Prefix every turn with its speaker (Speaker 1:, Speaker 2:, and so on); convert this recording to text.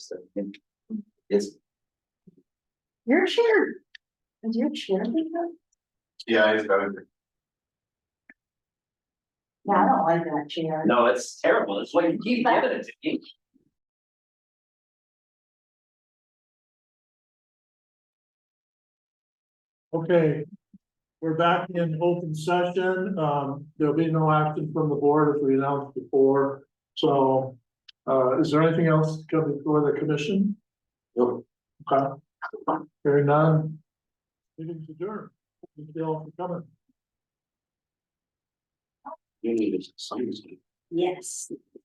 Speaker 1: and it's,
Speaker 2: Your chair. Is your chair big enough?
Speaker 3: Yeah, it's better.
Speaker 2: No, I don't like that chair.
Speaker 1: no, it's terrible, it's what you keep giving it to me.
Speaker 4: Okay, we're back in open session. Um, there'll be no action from the board as we announced before. So, uh, is there anything else coming before the commission?
Speaker 1: No.
Speaker 4: Okay, hearing none. Meeting's adjourned. Thank you all for coming.
Speaker 1: You need to sign this.
Speaker 2: Yes.